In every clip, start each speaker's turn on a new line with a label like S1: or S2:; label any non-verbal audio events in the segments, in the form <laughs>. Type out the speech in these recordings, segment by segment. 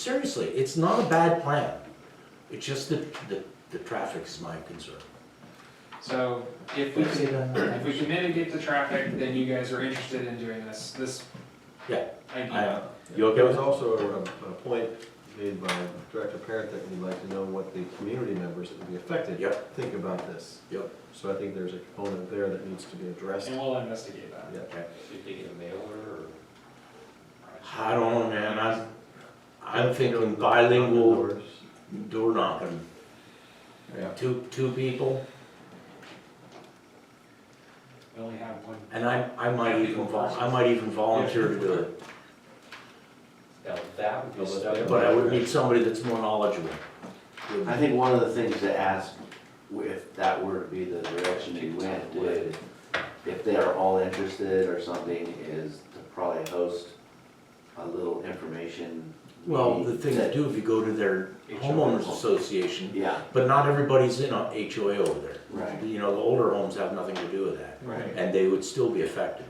S1: Seriously, it's not a bad plan. It's just that the, the traffic is my concern.
S2: So if we can, if we can mitigate the traffic, then you guys are interested in doing this, this.
S1: Yeah,
S2: Idea.
S1: You okay
S3: There
S1: with
S3: was
S1: that?
S3: also a, a point made by Director Parent that we'd like to know what the community members that would be affected
S1: Yep.
S3: think about this.
S1: Yep.
S3: So I think there's a component there that needs to be addressed.
S2: And we'll investigate that.
S3: Yeah.
S1: Okay.
S4: Did they get a mail order
S1: I don't know, man, I'm, I'm thinking
S3: Thinking
S1: bilingual
S3: doors.
S1: door knocking,
S3: Yeah.
S1: two, two people,
S2: We only have one.
S1: and I, I might even vol, I might even volunteer to do it.
S4: or, now that would be
S3: Well,
S4: stuff.
S1: But I would need somebody that's more knowledgeable.
S5: I think one of the things to ask, if that were to be the direction we went, would, if they are all interested or something, is to probably host a little information.
S1: Well, the thing to do, if you go to their homeowners association,
S5: Yeah,
S1: but not everybody's in a HOA over there.
S5: right.
S1: You know, the older homes have nothing to do with that,
S2: Right.
S1: and they would still be affected.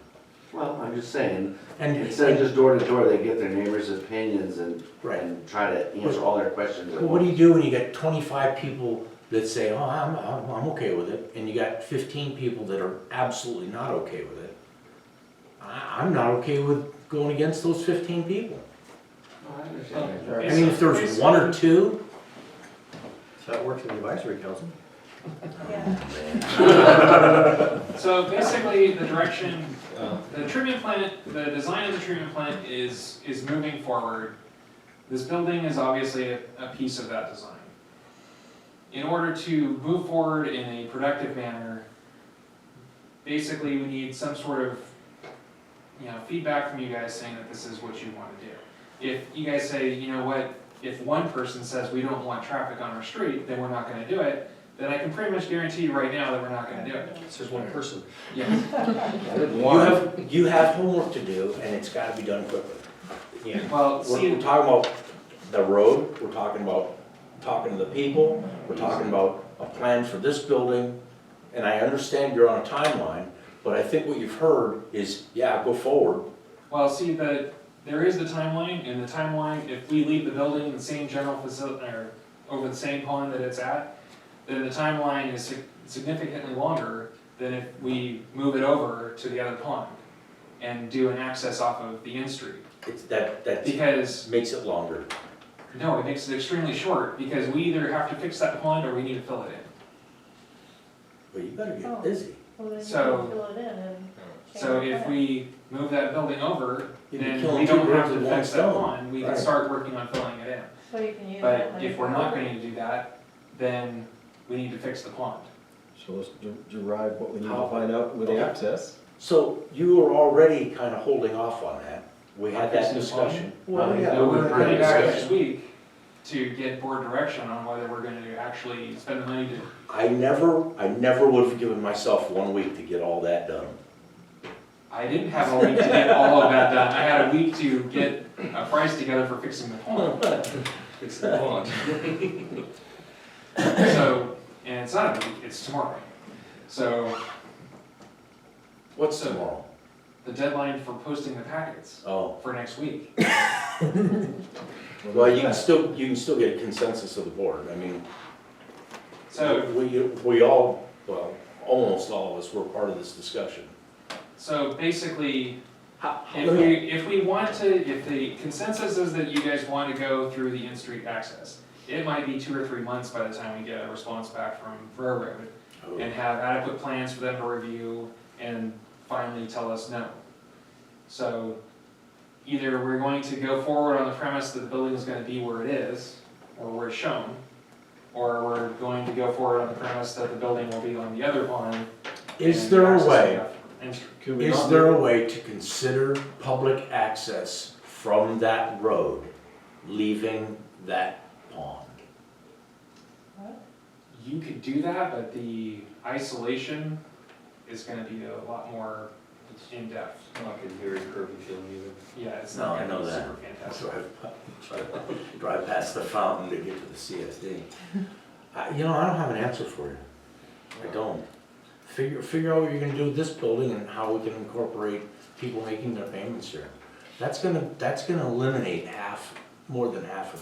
S5: Well, I'm just saying,
S1: And,
S5: instead of just door to door, they get their neighbors' opinions and,
S1: right,
S5: and try to answer all their questions. at
S1: well, what do
S5: once.
S1: you do when you got twenty-five people that say, oh, I'm, I'm, I'm okay with it, and you got fifteen people that are absolutely not okay with it? I, I'm not okay with going against those fifteen people.
S5: Oh, I understand.
S2: Oh,
S5: Sure.
S1: I mean, if there's one or two,
S3: So that works in the advisory council.
S2: So basically, the direction, the treatment plant, the design of the treatment plant is, is moving forward. This building is obviously a, a piece of that design. In order to move forward in a productive manner, basically, we need some sort of, you know, feedback from you guys saying that this is what you wanna do. If you guys say, you know what, if one person says we don't want traffic on our street, then we're not gonna do it, then I can pretty much guarantee you right now that we're not gonna do it.
S4: It's just one person.
S2: Yes.
S1: you have, you have homework to do, and it's gotta be done quickly. Yeah.
S2: Well,
S1: We're
S2: see,
S1: we're talking about the road, we're talking about talking to the people, we're talking about a plan for this building. And I understand you're on a timeline, but I think what you've heard is, yeah, go forward.
S2: well, see, the, there is the timeline, and the timeline, if we leave the building in the same general facility, or over the same pond that it's at, then the timeline is sig- significantly longer than if we move it over to the other pond and do an access off of the in street.
S1: It's that, that
S2: Because,
S1: makes it longer.
S2: no, it makes it extremely short, because we either have to fix that pond or we need to fill it in.
S1: But you better get busy.
S6: Well, then you
S2: So-
S6: can fill it in and change
S2: So
S6: it
S2: if
S6: back.
S2: we move that building over,
S1: You'd be
S2: then
S1: killing
S2: we
S1: two
S2: don't have
S1: birds with
S2: to
S1: one
S2: fix that
S1: stone.
S2: pond, we can
S1: Right.
S2: start working on filling it in.
S6: So you can use that
S2: But
S6: money
S2: if
S6: for
S2: we're not
S6: other-
S2: going to do that, then we need to fix the pond.
S3: So let's de- derive what we need
S1: How-
S3: to find out with the
S1: Okay.
S3: access.
S1: So you were already kind of holding off on that. We had that
S2: Fixing the
S1: discussion.
S3: Well,
S1: Right.
S3: yeah.
S2: So we're
S3: we're
S2: coming
S3: having
S2: back
S1: discussion.
S2: next week to get board direction on whether we're gonna actually spend the money to,
S1: I never, I never would have given myself one week to get all that done.
S2: I didn't have a week to get all of that done, I had a week to get a price together for fixing the pond.
S4: It's the one.
S2: <laughs> So, and it's not a week, it's tomorrow. So,
S1: What's
S2: So-
S1: tomorrow?
S2: the deadline for posting the packets
S1: Oh,
S2: for next week.
S1: well, you can still, you can still get a consensus of the board. I mean,
S2: So,
S1: We, we all, well, almost all of us were part of this discussion.
S2: so basically,
S1: How- how-
S2: If we, if we want to, if the consensus is that you guys want to go through the in-street access, it might be two or three months by the time we get a response back from railroad and have adequate plans for them to review and finally tell us no. So either we're going to go forward on the premise that the building is gonna be where it is, or where it's shown, or we're going to go forward on the premise that the building will be on the other pond.
S1: Is
S2: and
S1: there a
S2: accessing
S1: way,
S2: that in-street.
S3: Could we
S1: is
S3: not
S1: there
S3: do-
S1: a way to consider public access from that road, leaving that pond?
S2: You could do that, but the isolation is gonna be a lot more in-depth.
S4: I'm not gonna hear your curvy feeling either.
S2: Yeah, it's
S1: No,
S2: not
S1: I
S2: gonna
S1: know
S2: be
S1: that.
S2: super fantastic.
S1: Drive- Drive past the fountain to get to the CSD. I- You know, I don't have an answer for you. I don't. Figure, figure out what you're gonna do with this building and how we can incorporate people making their payments here. That's gonna, that's gonna eliminate half, more than half of it.